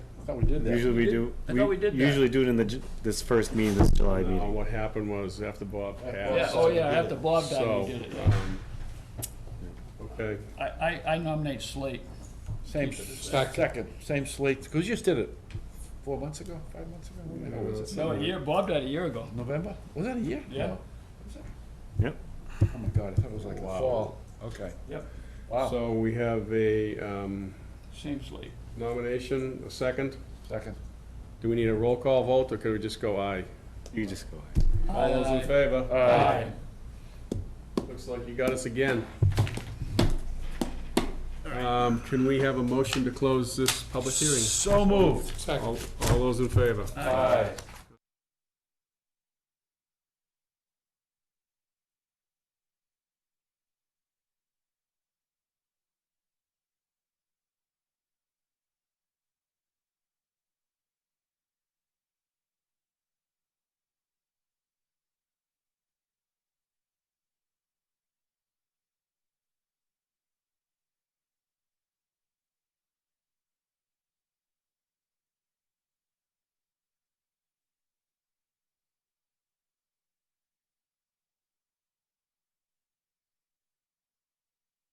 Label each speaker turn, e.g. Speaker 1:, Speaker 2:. Speaker 1: thought we did that.
Speaker 2: Usually we
Speaker 3: did-
Speaker 2: do,
Speaker 3: I thought we
Speaker 2: we
Speaker 3: did that.
Speaker 2: usually do it in the, ju- this first meeting, this July
Speaker 4: No,
Speaker 2: meeting.
Speaker 4: Uh, what happened was after Bob
Speaker 1: After
Speaker 3: Yeah,
Speaker 4: passed.
Speaker 3: oh yeah, after Bob died, you
Speaker 4: So,
Speaker 3: did it, yeah.
Speaker 4: um, Okay,
Speaker 3: I, I, I nominate Slate.
Speaker 1: Same, second, same slate, because you just did it four months ago, five months ago? When the hell was it?
Speaker 3: No, a year, Bob died a year ago.
Speaker 1: November? Was that a year?
Speaker 3: Yeah.
Speaker 1: No. Was it?
Speaker 2: Yep.
Speaker 1: Oh my God, I thought it was like the
Speaker 4: Wow.
Speaker 1: fall. Okay.
Speaker 3: Yep.
Speaker 1: Wow.
Speaker 4: so we have a um,
Speaker 3: Same Slate.
Speaker 4: nomination, a second.
Speaker 1: Second.
Speaker 4: Do we need a roll call vote, or could we just go aye?
Speaker 2: You just go.
Speaker 4: All those in
Speaker 3: Aye.
Speaker 4: favor?
Speaker 3: Aye.
Speaker 4: Looks like you got us again. Um, Can we have a motion to close this public hearing?
Speaker 1: So moved.
Speaker 4: All all those in favor?
Speaker 1: Aye.